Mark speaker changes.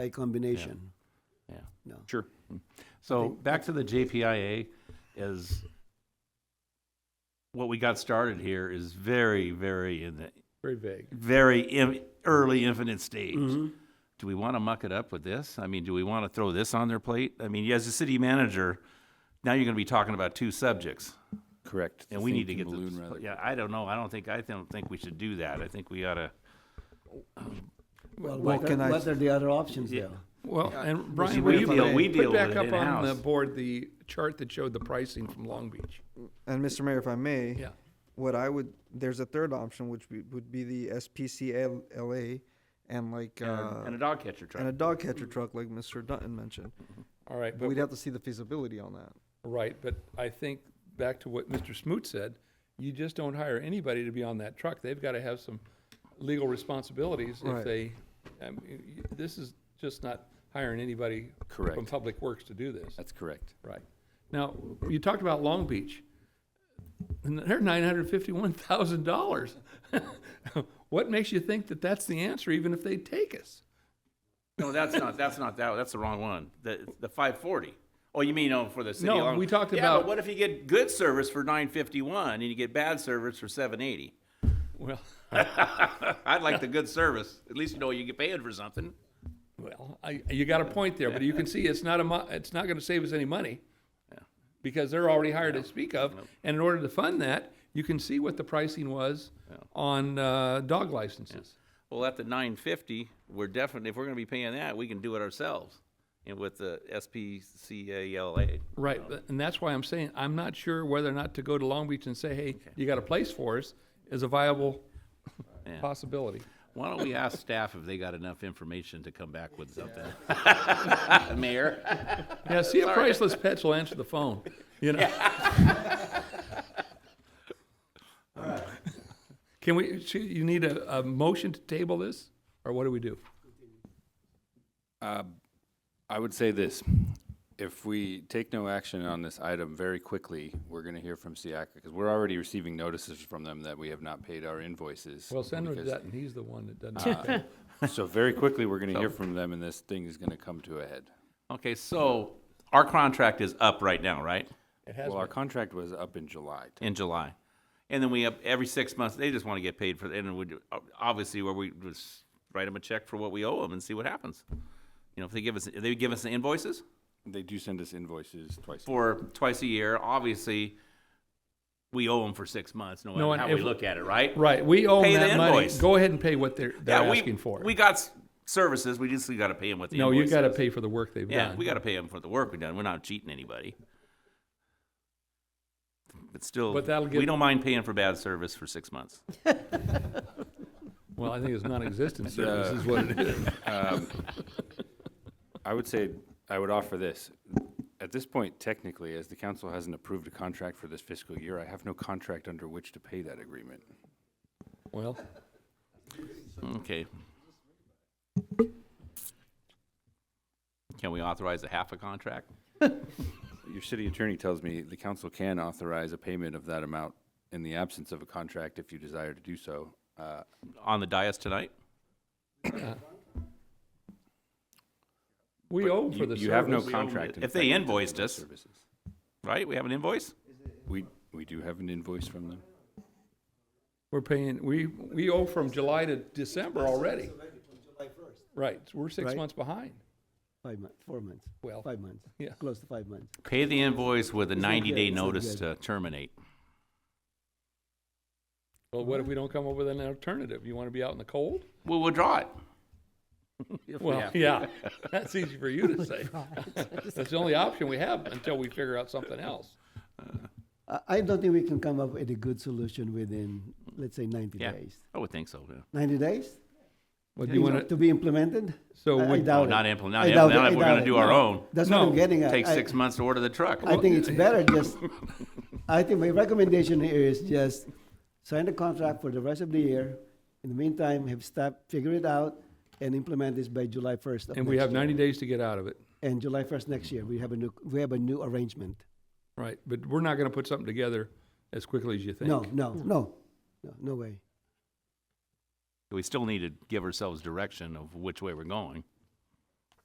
Speaker 1: a combination.
Speaker 2: Yeah.
Speaker 1: No.
Speaker 2: Sure. So back to the JPIA is what we got started here is very, very in the
Speaker 3: Very vague. Mm-hmm.
Speaker 2: very im- early infinite stage.
Speaker 1: Mhm.
Speaker 2: Do we want to muck it up with this? I mean, do we want to throw this on their plate? I mean, as a city manager, now you're going to be talking about two subjects,
Speaker 4: Correct.
Speaker 2: and
Speaker 4: The
Speaker 2: we need to
Speaker 4: Thinking
Speaker 2: get the
Speaker 4: balloon rather.
Speaker 2: yeah. I don't know. I don't think I don't think we should do that. I think we ought to.
Speaker 1: Well,
Speaker 5: Well,
Speaker 1: what are,
Speaker 5: can I-
Speaker 1: what are the other options
Speaker 2: Yeah.
Speaker 1: there?
Speaker 3: Well,
Speaker 5: And
Speaker 2: See,
Speaker 5: Brian,
Speaker 2: we
Speaker 5: what if I
Speaker 2: deal-
Speaker 5: may-
Speaker 2: we deal
Speaker 3: put
Speaker 2: with
Speaker 3: back
Speaker 2: it
Speaker 3: up on the
Speaker 2: in-house.
Speaker 3: board the chart that showed the pricing from Long Beach.
Speaker 5: and Mr. Mayor, if I may,
Speaker 3: Yeah.
Speaker 5: what I would there's a third option which be, would be the SPCLA and like
Speaker 2: and,
Speaker 5: uh,
Speaker 2: a, and a dog catcher truck.
Speaker 5: and a dog catcher truck, like Mr. Dutton mentioned.
Speaker 3: All right,
Speaker 5: But
Speaker 3: but
Speaker 5: we'd have to see the feasibility on that.
Speaker 3: right, but I think back to what Mr. Smoot said, you just don't hire anybody to be on that truck. They've got to have some legal responsibilities if
Speaker 5: Right.
Speaker 3: they. I mean, y- this is just not hiring anybody from
Speaker 4: Correct.
Speaker 3: Public Works to do this.
Speaker 4: That's correct.
Speaker 3: Right. Now, you talked about Long Beach. And they're nine hundred fifty-one thousand dollars. What makes you think that that's the answer, even if they take us?
Speaker 2: No, that's not, that's not that, that's the wrong one. The, the five forty. Oh, you mean, oh, for the city?
Speaker 3: No,
Speaker 2: alone.
Speaker 3: we talked
Speaker 2: Yeah, but
Speaker 3: about-
Speaker 2: what if you get good service for nine fifty-one and you get bad service for seven eighty?
Speaker 3: Well,
Speaker 2: I'd like the good service. At least you know you get paid for something.
Speaker 3: well, I, you got a point there, but you can see it's not a mo- it's not gonna save us any money. Because they're already hired to speak of, and in order to fund that, you can see what the pricing was on, uh, dog licenses.
Speaker 2: Well, at the nine fifty, we're definitely, if we're gonna be paying that, we can do it ourselves. And with the SPCALA.
Speaker 3: Right, but- and that's why I'm saying, I'm not sure whether or not to go to Long Beach and say, hey, you got a place for us, is a viable
Speaker 2: Yeah.
Speaker 3: possibility.
Speaker 2: Why don't we ask staff if they got enough information to come back with something? Mayor?
Speaker 3: Yeah, see if Priceless Pets will answer the phone, you know? Can we, so you need a, a motion to table this, or what do we do?
Speaker 4: Uh, I would say this, if we take no action on this item very quickly, we're gonna hear from Siaka, because we're already receiving notices from them that we have not paid our invoices.
Speaker 3: Well, Senator
Speaker 4: because-
Speaker 3: Dutton, he's the one that
Speaker 2: Ah.
Speaker 3: doesn't.
Speaker 4: So very quickly, we're gonna hear from them and this thing is gonna come to a head.
Speaker 2: Okay, so our contract is up right now, right?
Speaker 3: It has
Speaker 4: Well, our
Speaker 3: been.
Speaker 4: contract was up in July.
Speaker 2: in July. And then we have, every six months, they just want to get paid for, and we, do- obviously, where we just write them a check for what we owe them and see what happens. You know, if they give us, if they give us the invoices
Speaker 4: They do send us invoices twice.
Speaker 2: for twice a year, obviously, we owe them for six months, no
Speaker 3: No,
Speaker 2: matter
Speaker 3: and
Speaker 2: how we
Speaker 3: if-
Speaker 2: look at it, right?
Speaker 3: Right, we owe
Speaker 2: Pay
Speaker 3: them
Speaker 2: the
Speaker 3: that money.
Speaker 2: invoice.
Speaker 3: Go ahead and pay what they're, they're
Speaker 2: Yeah, we-
Speaker 3: asking for.
Speaker 2: We got s- services, we just got to pay them with the
Speaker 3: No,
Speaker 2: invoices.
Speaker 3: you gotta pay for the work they've
Speaker 2: Yeah,
Speaker 3: done.
Speaker 2: we got to pay them for the work we've done, we're not cheating anybody. But still,
Speaker 3: But that'll
Speaker 2: we
Speaker 3: get-
Speaker 2: don't mind paying for bad service for six months.
Speaker 3: Well, I think it's non-existent service is what it is.
Speaker 4: Um, I would say, I would offer this. At this point, technically, as the council hasn't approved a contract for this fiscal year, I have no contract under which to pay that agreement.
Speaker 3: Well,
Speaker 2: Okay. Can we authorize a half a contract?
Speaker 4: Your city attorney tells me the council can authorize a payment of that amount in the absence of a contract if you desire to do so. Uh,
Speaker 2: On the dais tonight?
Speaker 3: we owe for
Speaker 4: you-
Speaker 3: the
Speaker 4: You have no
Speaker 3: service.
Speaker 4: contract. in
Speaker 2: If they
Speaker 4: effect,
Speaker 2: invoiced
Speaker 4: for
Speaker 2: us.
Speaker 4: services.
Speaker 2: Right, we have an invoice?
Speaker 4: We, we do have an invoice from them.
Speaker 3: We're paying, we, we owe from July to December already. Right, so we're six
Speaker 1: Right.
Speaker 3: months behind.
Speaker 1: Five months, four months,
Speaker 3: Well,
Speaker 1: five months,
Speaker 3: yeah.
Speaker 1: close to five months.
Speaker 2: Pay the invoice with a
Speaker 1: It's not
Speaker 2: ninety
Speaker 1: good,
Speaker 2: day
Speaker 1: it's not
Speaker 2: notice
Speaker 1: good.
Speaker 2: to terminate.
Speaker 3: Well, what if we don't come up with an alternative? You want to be out in the cold?
Speaker 2: We'll withdraw it. If we
Speaker 3: Well,
Speaker 2: have to.
Speaker 3: yeah, that's easy for you to say.
Speaker 1: Oh
Speaker 3: That's the only option we have until we figure out something else.
Speaker 1: I, I don't think we can come up with a good solution within, let's say, ninety
Speaker 2: Yeah,
Speaker 1: days.
Speaker 2: I would think so, yeah.
Speaker 1: Ninety days?
Speaker 3: Well, do you want
Speaker 1: To
Speaker 3: to,
Speaker 1: be implemented?
Speaker 3: So
Speaker 1: I- I
Speaker 3: would-
Speaker 1: doubt
Speaker 2: Oh,
Speaker 1: it.
Speaker 2: not implement, not
Speaker 1: I doubt it,
Speaker 2: implement,
Speaker 1: I
Speaker 2: if we're
Speaker 1: doubt
Speaker 2: gonna
Speaker 1: it.
Speaker 2: do our own.
Speaker 1: That's what I'm
Speaker 3: No.
Speaker 1: getting at.
Speaker 2: Take
Speaker 1: I-
Speaker 2: six months to order the truck.
Speaker 1: I think it's better just, I think my recommendation here is just sign the contract for the rest of the year. In the meantime, have staff figure it out and implement this by July first
Speaker 3: and we have ninety days to get out of it,
Speaker 1: And July first next year, we have a new, we have a new arrangement.
Speaker 3: right? But we're not going to put something together as quickly as you think.
Speaker 1: No, no, no, no, no way.
Speaker 2: We still need to give ourselves direction of which way we're going.